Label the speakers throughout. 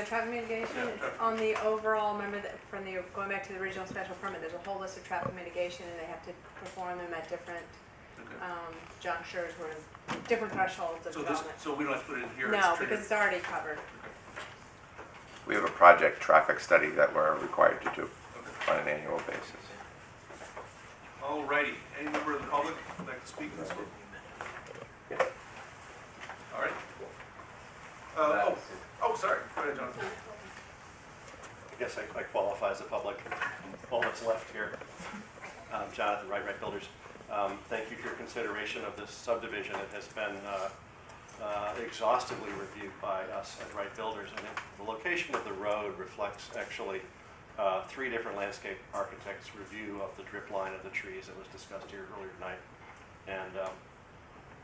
Speaker 1: The Traffic mitigation,
Speaker 2: Yeah,
Speaker 1: it's
Speaker 2: traffic.
Speaker 1: on the overall, remember that from the, going back to the original special permit, there's a whole list of traffic mitigation and they have to perform them at different,
Speaker 2: Okay.
Speaker 1: um, junctures where, different thresholds of
Speaker 2: So this,
Speaker 1: development.
Speaker 2: so we don't have to put it in here? it's
Speaker 1: No,
Speaker 2: triggered.
Speaker 1: because it's already covered.
Speaker 3: We have a project traffic study that we're required to do
Speaker 2: Okay.
Speaker 3: on an annual basis.
Speaker 2: All righty, any member of the public would like to speak to this one? All right. Uh, oh, oh, sorry, go ahead, Jonathan.
Speaker 4: I guess I I qualify as a public, all that's left here. Um, Jonathan Wright, Wright Builders. Um, Thank you for your consideration of this subdivision. It has been uh, uh, exhaustively reviewed by us at Wright Builders. And it- the location of the road reflects actually uh, three different landscape architects' review of the drip line of the trees that was discussed here earlier tonight. And um,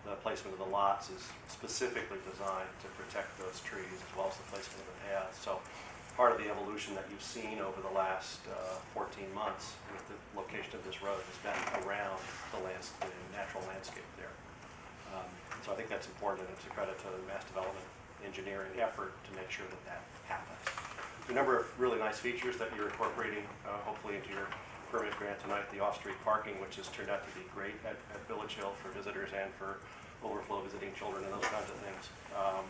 Speaker 4: the placement of the lots is specifically designed to protect those trees as well as the placement of the paths. So part of the evolution that you've seen over the last uh, 14 months with the location of this road has been around the lands, the natural landscape there. Um, So I think that's important, and it's a credit to the mass development engineering effort to make sure that that happens. A number of really nice features that you're incorporating, uh, hopefully into your permit grant tonight, the off-street parking, which has turned out to be great at at Village Hill for visitors and for overflow visiting children and those kinds of things. Um,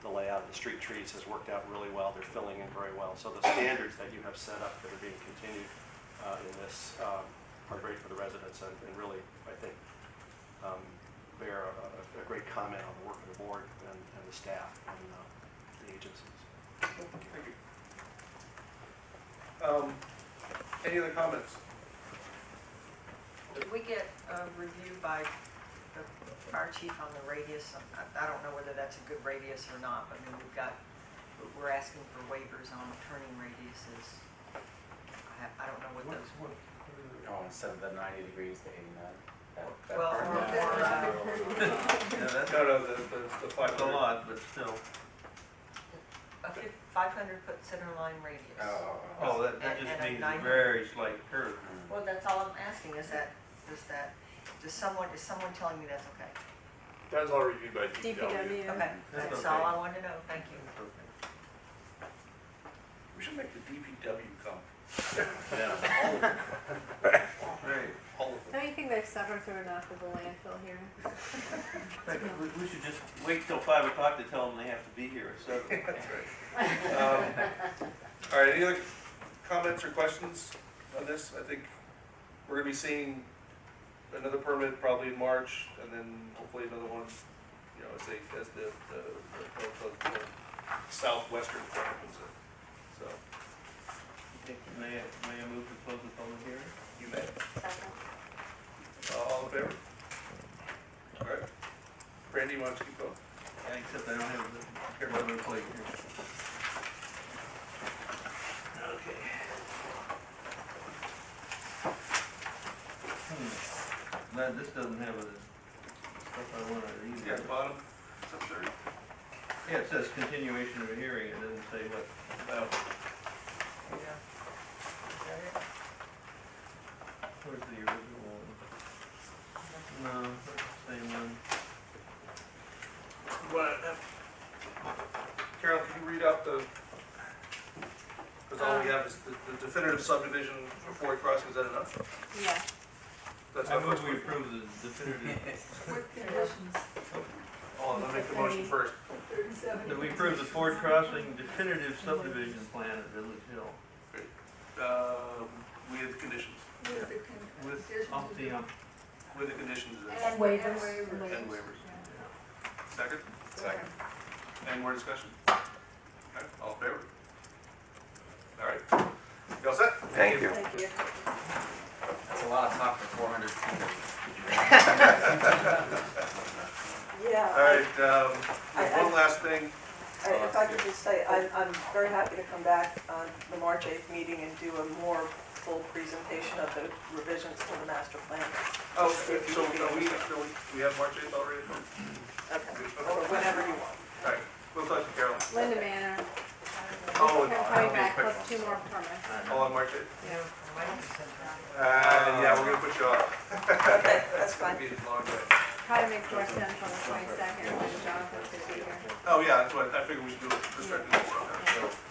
Speaker 4: The layout of the street trees has worked out really well, they're filling in very well. So the standards that you have set up that are being continued uh, in this um, are great for the residents and and really, I think, um, bear a- a, a great comment on the work of the board and, and the staff and uh, the agencies.
Speaker 2: Thank you. Um, any other comments?
Speaker 5: Did we get a review by the fire chief on the radius? I, I don't know whether that's a good radius or not, but I mean, we've got, we're asking for waivers on turning radiuses. I, ha- I don't know what those,
Speaker 6: Oh, instead of the ninety degrees, they eighty-nine. That- that
Speaker 5: well,
Speaker 6: part,
Speaker 5: or, or,
Speaker 6: yeah.
Speaker 5: uh,
Speaker 7: Yeah, that's
Speaker 2: No, no, the, the, the five
Speaker 7: a
Speaker 2: hundred.
Speaker 7: lot, but still.
Speaker 5: uh, a five hundred foot center line radius.
Speaker 6: Oh,
Speaker 7: Oh,
Speaker 6: oh,
Speaker 7: that, that
Speaker 5: And-
Speaker 7: just
Speaker 5: and a
Speaker 7: means
Speaker 5: nine-
Speaker 7: a very slight curve.
Speaker 5: Well, that's all I'm asking, is that, is that, does someone, is someone telling me that's okay?
Speaker 2: That's all reviewed by
Speaker 1: DPW,
Speaker 5: Okay,
Speaker 7: That's
Speaker 5: that's all
Speaker 7: okay.
Speaker 5: I wanted to know, thank you.
Speaker 2: We should make the DPW come.
Speaker 4: Yeah.
Speaker 7: Right.
Speaker 2: All of
Speaker 1: don't you think they've suffered through enough with the landfill here?
Speaker 7: But we, we should just wait till five o'clock to tell them they have to be here at seven.
Speaker 2: That's right. Um, All right, any other comments or questions on this? I think we're gonna be seeing another permit probably in March, and then hopefully another one, you know, as they, as the, the, the- the- the southwestern corner comes in. So,
Speaker 7: May I, may I move to close the public hearing?
Speaker 2: you may. Uh, All in favor? All right. Brandy, why don't you keep going?
Speaker 7: Except I don't have the, care about the plate here.
Speaker 2: Okay.
Speaker 7: Hmm. Glad this doesn't have the stuff I wanted
Speaker 2: Yeah,
Speaker 7: either.
Speaker 2: bottom, it's up there.
Speaker 7: Yeah, it says continuation of a hearing, it doesn't say what, about,
Speaker 5: Yeah. Is that it?
Speaker 7: where's the original one? No, same one.
Speaker 2: What, Carol, can you read out the, because all we have is the the definitive subdivision report crossing, is that enough?
Speaker 1: Yeah.
Speaker 2: That's
Speaker 7: I
Speaker 2: not
Speaker 7: move
Speaker 2: much.
Speaker 7: we approve the definitive,
Speaker 2: Oh, let me make the motion first.
Speaker 7: that we approve the Ford Crossing definitive subdivision plan at Village Hill
Speaker 2: Um, We have the conditions,
Speaker 7: with uh, umpty ump.
Speaker 2: with the conditions
Speaker 8: And waivers.
Speaker 2: and waivers. Second? Second. Any more discussion? Okay, all in favor? All right. You all set?
Speaker 3: Thank you.
Speaker 8: Thank you.
Speaker 6: that's a lot of talk for four hundred feet.
Speaker 8: Yeah.
Speaker 2: All right, um, we have
Speaker 8: I- I-
Speaker 2: one last thing.
Speaker 8: I- If I could just say, I'm, I'm very happy to come back on the March 8th meeting and do a more full presentation of the revisions to the master plan.
Speaker 2: Oh, so are we, so we- we have March 8th already?
Speaker 8: Okay.
Speaker 2: Okay.
Speaker 8: Or whenever you want.
Speaker 2: All right, we'll talk to Carolyn.
Speaker 1: Linda Manor,
Speaker 2: Oh,
Speaker 1: they're coming back plus two more permits.
Speaker 2: all on March 8th?
Speaker 5: Yeah, why don't you send that?
Speaker 2: Uh, yeah, we're gonna put you off.
Speaker 8: Okay, that's fine.
Speaker 2: It'll be a long day.
Speaker 1: Probably makes more sense on the twenty-second when Jonathan's gonna be here.
Speaker 2: Oh, yeah, that's what, I figured we should do it, let's start doing this.